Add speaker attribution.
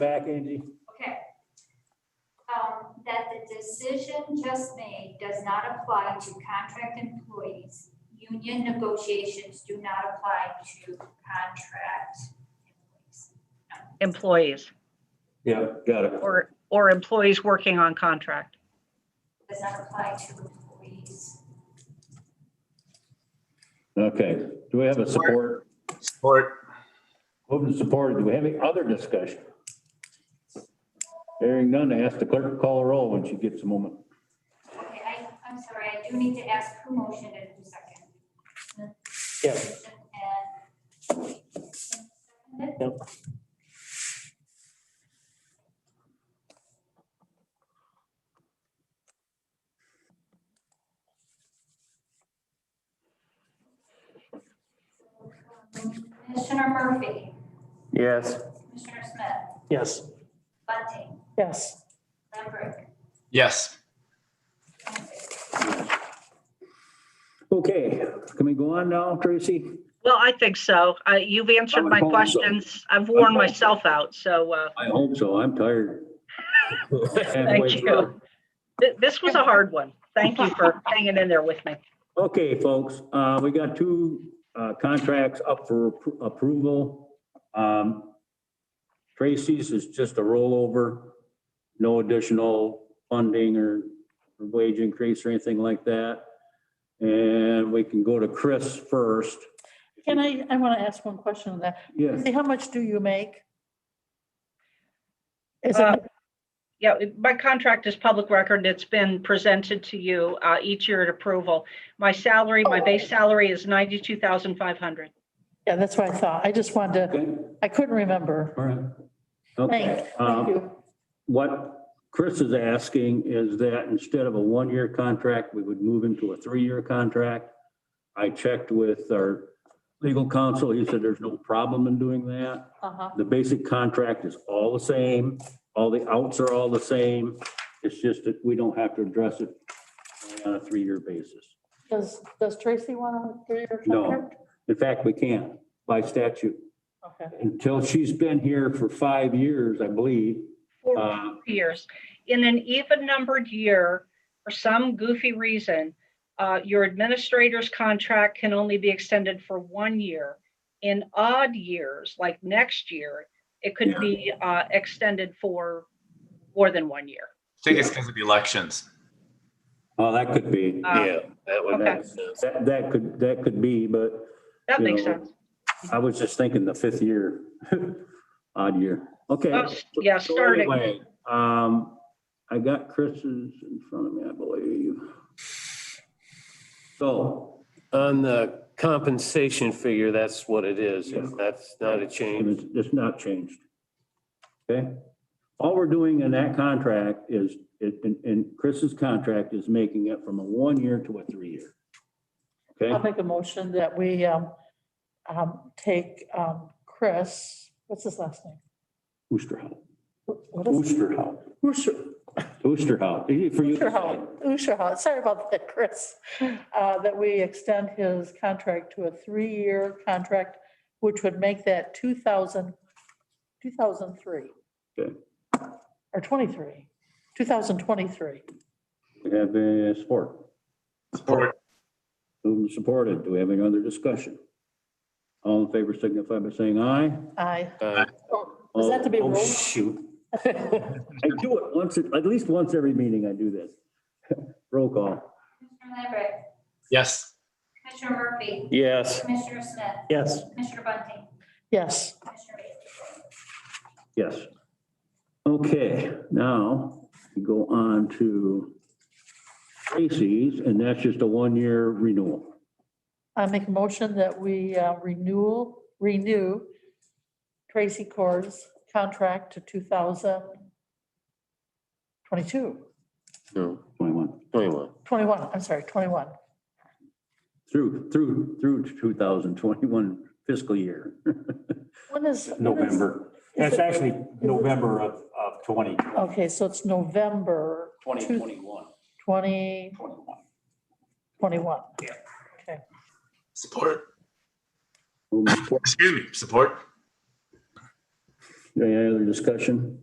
Speaker 1: back, Angie.
Speaker 2: Okay. Um, that the decision just made does not apply to contract employees. Union negotiations do not apply to contract employees.
Speaker 3: employees
Speaker 4: Yeah, got it.
Speaker 3: or, or employees working on contract.
Speaker 2: Does not apply to employees.
Speaker 4: Okay, do we have a support?
Speaker 5: Support.
Speaker 4: Moved and supported. Do we have any other discussion? Hearing none, I ask the clerk to call a roll when she gets a moment.
Speaker 2: Okay, I, I'm sorry, I do need to ask who motioned in a second.
Speaker 1: Yes.
Speaker 2: And-
Speaker 1: Yep.
Speaker 2: Commissioner Murphy,
Speaker 5: Yes.
Speaker 2: Commissioner Smith,
Speaker 1: Yes.
Speaker 2: Bunting,
Speaker 6: yes,
Speaker 2: Lambert.
Speaker 5: Yes.
Speaker 4: Okay, can we go on now, Tracy?
Speaker 3: Well, I think so. Uh, you've answered my
Speaker 4: Someone calls them.
Speaker 3: questions. I've worn
Speaker 4: Okay.
Speaker 3: myself out, so, uh,
Speaker 4: I hope so. I'm tired.
Speaker 3: thank you. Th- This was a hard one. Thank you for hanging in there with me.
Speaker 4: Okay, folks, uh, we got two, uh, contracts up for appro- approval. Um, Tracy's is just a rollover, no additional funding or wage increase or anything like that. And we can go to Chris first.
Speaker 6: can I, I want to ask one question on that,
Speaker 4: Yes,
Speaker 6: see, how much do you make? Is
Speaker 3: Uh,
Speaker 6: it,
Speaker 3: Yeah, it- my contract is public record. It's been presented to you, uh, each year at approval. My salary, my base salary is ninety-two thousand five hundred.
Speaker 6: yeah, that's what I thought, I just wanted to,
Speaker 4: okay,
Speaker 6: I couldn't remember,
Speaker 4: all right.
Speaker 6: thank,
Speaker 4: Okay.
Speaker 6: thank
Speaker 4: um,
Speaker 6: you,
Speaker 4: What Chris is asking is that instead of a one-year contract, we would move into a three-year contract. I checked with our legal counsel. He said there's no problem in doing that.
Speaker 6: uh-huh,
Speaker 4: The basic contract is all the same. All the outs are all the same. It's just that we don't have to address it on a three-year basis.
Speaker 6: does, does Tracy want a three-year
Speaker 4: No.
Speaker 6: contract?
Speaker 4: In fact, we can by statute.
Speaker 6: Okay,
Speaker 4: Until she's been here for five years, I believe. uh,
Speaker 3: years. In an even numbered year, for some goofy reason, uh, your administrator's contract can only be extended for one year. In odd years, like next year, it could be uh, extended for more than one year.
Speaker 5: I think it's because of elections.
Speaker 4: Oh, that could be.
Speaker 7: Um,
Speaker 3: Uh,
Speaker 5: that
Speaker 3: would make
Speaker 5: sense.
Speaker 4: That, that could, that could be, but
Speaker 3: That
Speaker 4: you
Speaker 3: makes
Speaker 4: know,
Speaker 3: sense.
Speaker 4: I was just thinking the fifth year, odd year. Okay.
Speaker 3: Oh, s- yeah,
Speaker 4: So
Speaker 3: starting.
Speaker 4: anyway, Um, I got Chris's in front of me, I believe. So,
Speaker 7: On the compensation figure, that's what it is.
Speaker 4: Yeah.
Speaker 7: That's not a change.
Speaker 4: it's, it's not changed. Okay? All we're doing in that contract is, it- in, in Chris's contract is making it from a one-year to a three-year. Okay?
Speaker 6: I'll make a motion that we, um, um, take, um, Chris, what's his last name?
Speaker 4: Oosterhout,
Speaker 6: What- What is?
Speaker 4: Oosterhout,
Speaker 6: Usher.
Speaker 4: Oosterhout, easy for you. to say.
Speaker 6: Usherhout, Usherhout, sorry about that, Chris, Uh, that we extend his contract to a three-year contract, which would make that 2000, 2003.
Speaker 4: Okay.
Speaker 6: Or 23, 2023.
Speaker 4: We have a support.
Speaker 5: Support.
Speaker 4: Moved and supported. Do we have any other discussion? All in favor signify by saying aye.
Speaker 6: Aye.
Speaker 7: Uh,
Speaker 6: Was that to be
Speaker 4: Oh,
Speaker 6: roll?
Speaker 4: Oh, shoot. I do it once, at least once every meeting I do this. Roll call.
Speaker 2: Commissioner Lambert,
Speaker 5: Yes.
Speaker 2: Commissioner Murphy,
Speaker 7: Yes,
Speaker 2: Commissioner Smith,
Speaker 1: Yes.
Speaker 2: Commissioner Bunting,
Speaker 6: Yes,
Speaker 2: Commissioner Bailey.
Speaker 4: Yes. Okay, now we go on to Tracy's, and that's just a one-year renewal.
Speaker 6: I make a motion that we uh, renewal, renew Tracy Cor's contract to 2022,
Speaker 7: no,
Speaker 4: 21,
Speaker 7: 21.
Speaker 6: 21, I'm sorry, 21.
Speaker 4: through, through, through to 2021 fiscal year.
Speaker 6: When is? when is-
Speaker 8: November.
Speaker 6: is
Speaker 8: That's
Speaker 6: it-
Speaker 8: actually November of, of 20,
Speaker 6: Okay, so it's November
Speaker 4: 2021.
Speaker 6: 2021.
Speaker 5: Support.
Speaker 4: Moved and supported.
Speaker 5: Excuse me. Support.
Speaker 4: Any other discussion?